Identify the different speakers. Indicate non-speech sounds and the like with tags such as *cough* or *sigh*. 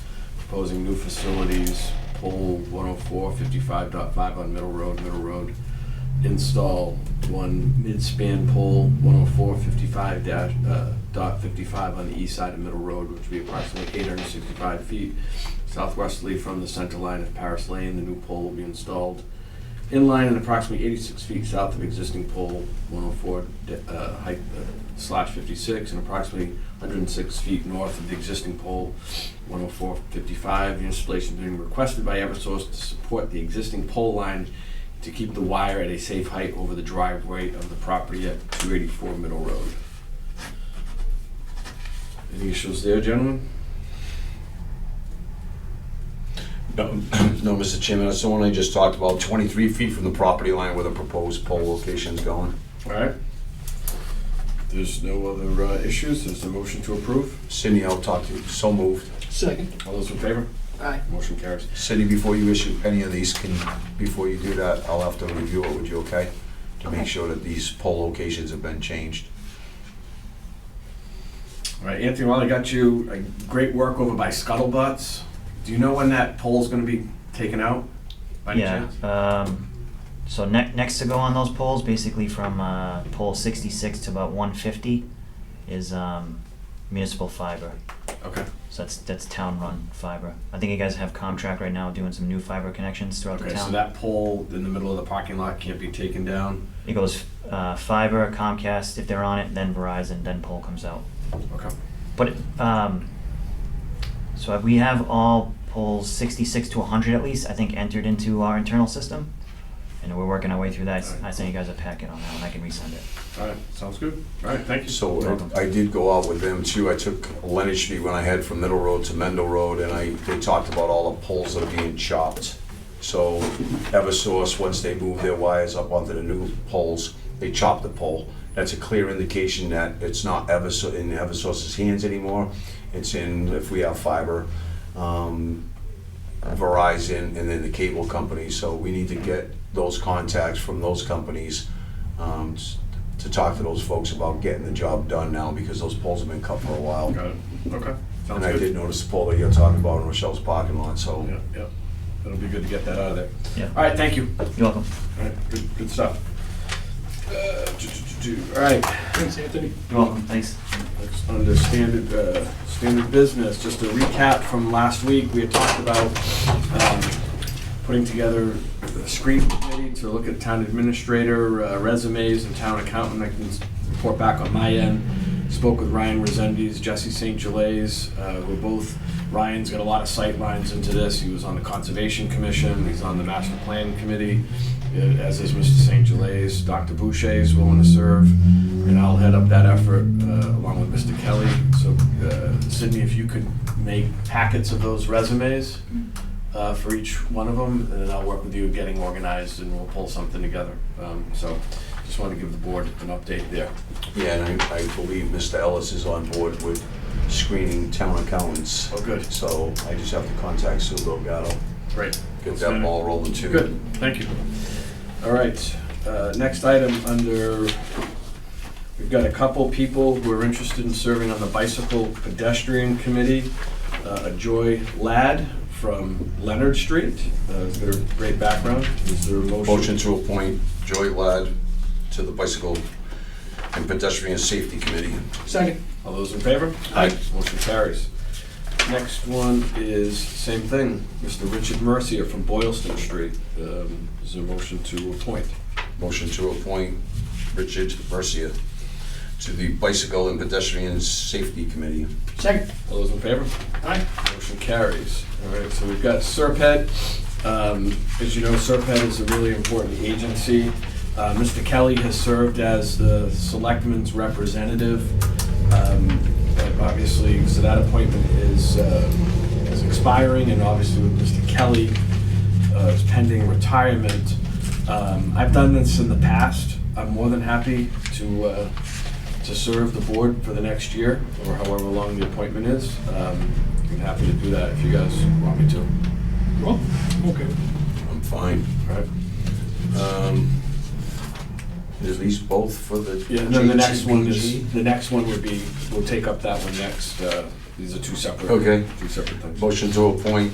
Speaker 1: proposing new facilities, pole 104, 55.5 on Middle Road, Middle Road, install one mid-span pole, 104, 55 dash, uh, dot 55 on the east side of Middle Road, which would be approximately 865 feet southwesterly from the center line of Paris Lane. The new pole will be installed in line and approximately 86 feet south of existing pole 104 de- uh, height uh, slash 56 and approximately 106 feet north of the existing pole 104 55. The installation being requested by Eversource to support the existing pole line to keep the wire at a safe height over the driveway of the property at 284 Middle Road. Any issues there, gentlemen?
Speaker 2: No, *clears throat* no, Mr. Chairman, that's the one I just talked about, 23 feet from the property line where the proposed pole location's going.
Speaker 1: All right. There's no other uh, issues, there's a motion to approve.
Speaker 2: Cindy, I'll talk to you, so moved.
Speaker 3: Second.
Speaker 1: All those in favor?
Speaker 3: Aye.
Speaker 1: Motion carries.
Speaker 2: Cindy, before you issue any of these, can, before you do that, I'll have to review it with you, okay? To
Speaker 3: Okay.
Speaker 2: make sure that these pole locations have been changed.
Speaker 1: All right, Anthony, while I got you, a great work over by Scuttlebutts. Do you know when that pole's gonna be taken out? By any
Speaker 4: yeah.
Speaker 1: chance?
Speaker 4: Um, so ne- next to go on those poles, basically from uh, pole 66 to about 150, is um, municipal fiber.
Speaker 1: Okay,
Speaker 4: So that's that's town run fiber. I think you guys have Comtrack right now doing some new fiber connections throughout the
Speaker 1: okay,
Speaker 4: town.
Speaker 1: so that pole in the middle of the parking lot can't be taken down?
Speaker 4: it goes uh, fiber, Comcast if they're on it, then Verizon, then pole comes out.
Speaker 1: Okay.
Speaker 4: But it- um, so we have all poles 66 to 100 at least, I think, entered into our internal system. And we're working our way through that. I sent you guys a packet on that one. I can resend it.
Speaker 1: All right, sounds good. All right, thank you.
Speaker 2: So I- I did go out with them too. I took Leonard Street when I head from Middle Road to Mendel Road, and I, they talked about all the poles that are being chopped. So Eversource, once they move their wires up onto the new poles, they chop the pole. That's a clear indication that it's not Eversource, in Eversource's hands anymore. It's in, if we have fiber, um, Verizon, and then the cable company. So we need to get those contacts from those companies um, s- to talk to those folks about getting the job done now because those poles have been cut for a while.
Speaker 1: Got it, okay, sounds
Speaker 2: And I did
Speaker 1: good.
Speaker 2: notice the pole that you're talking about in Rochelle's parking lot, so.
Speaker 1: Yeah, yeah, it'll be good to get that out of there.
Speaker 4: Yeah.
Speaker 1: All right, thank you.
Speaker 4: You're welcome.
Speaker 1: All right, good, good stuff. Uh, do, do, do, do. All right,
Speaker 3: Thanks, Anthony.
Speaker 4: You're welcome. Thanks.
Speaker 1: Next, Under standard, uh, standard business, just a recap from last week, we had talked about um, putting together a screen committee to look at town administrator uh, resumes and town accountant. I can s- report back on my end. Spoke with Ryan Resendes, Jesse St. Gelais, uh, who are both, Ryan's got a lot of sight lines into this. He was on the Conservation Commission, he's on the Master Plan Committee, uh, as is Mr. St. Gelais. Dr. Boucher is willing to serve, and I'll head up that effort uh, along with Mr. Kelly. So uh, Sydney, if you could make packets of those resumes uh, for each one of them, and then I'll work with you getting organized, and we'll pull something together. Um, So just want to give the board an update there.
Speaker 2: Yeah, and I, I believe Mr. Ellis is on board with screening town accountants.
Speaker 1: Oh, good.
Speaker 2: So I just have to contact Sue Delgado,
Speaker 1: Great.
Speaker 2: get that ball rolling too.
Speaker 1: Good, thank you. All right, uh, next item under, we've got a couple people who are interested in serving on the Bicycle Pedestrian Committee. Uh, Joy Ladd from Leonard Street, uh, has got a great background. Is there a motion?
Speaker 2: Motion to appoint Joy Ladd to the Bicycle and Pedestrian Safety Committee.
Speaker 3: Second.
Speaker 1: All those in favor?
Speaker 2: Aye.
Speaker 1: Motion carries. Next one is same thing, Mr. Richard Mercier from Boylston Street. Um, Is there a motion to appoint?
Speaker 2: Motion to appoint Richard Mercia to the Bicycle and Pedestrian Safety Committee.
Speaker 3: Second.
Speaker 1: All those in favor?
Speaker 3: Aye.
Speaker 1: Motion carries. All right, so we've got Serped. Um, As you know, Serped is a really important agency. Uh, Mr. Kelly has served as the selectman's representative. Um, but Obviously, so that appointment is, uh, is expiring, and obviously with Mr. Kelly, uh, is pending retirement. Um, I've done this in the past. I'm more than happy to, uh, to serve the board for the next year, or however long the appointment is. Um, I'm happy to do that if you guys want me to. All
Speaker 3: Well, okay.
Speaker 2: I'm fine.
Speaker 1: right?
Speaker 2: Um, Is these both for the?
Speaker 1: Yeah, and then the next one
Speaker 2: GTPG?
Speaker 1: is, the next one would be, we'll take up that one next, uh, These are two separate.
Speaker 2: Okay.
Speaker 1: Two separate things.
Speaker 2: Motion to appoint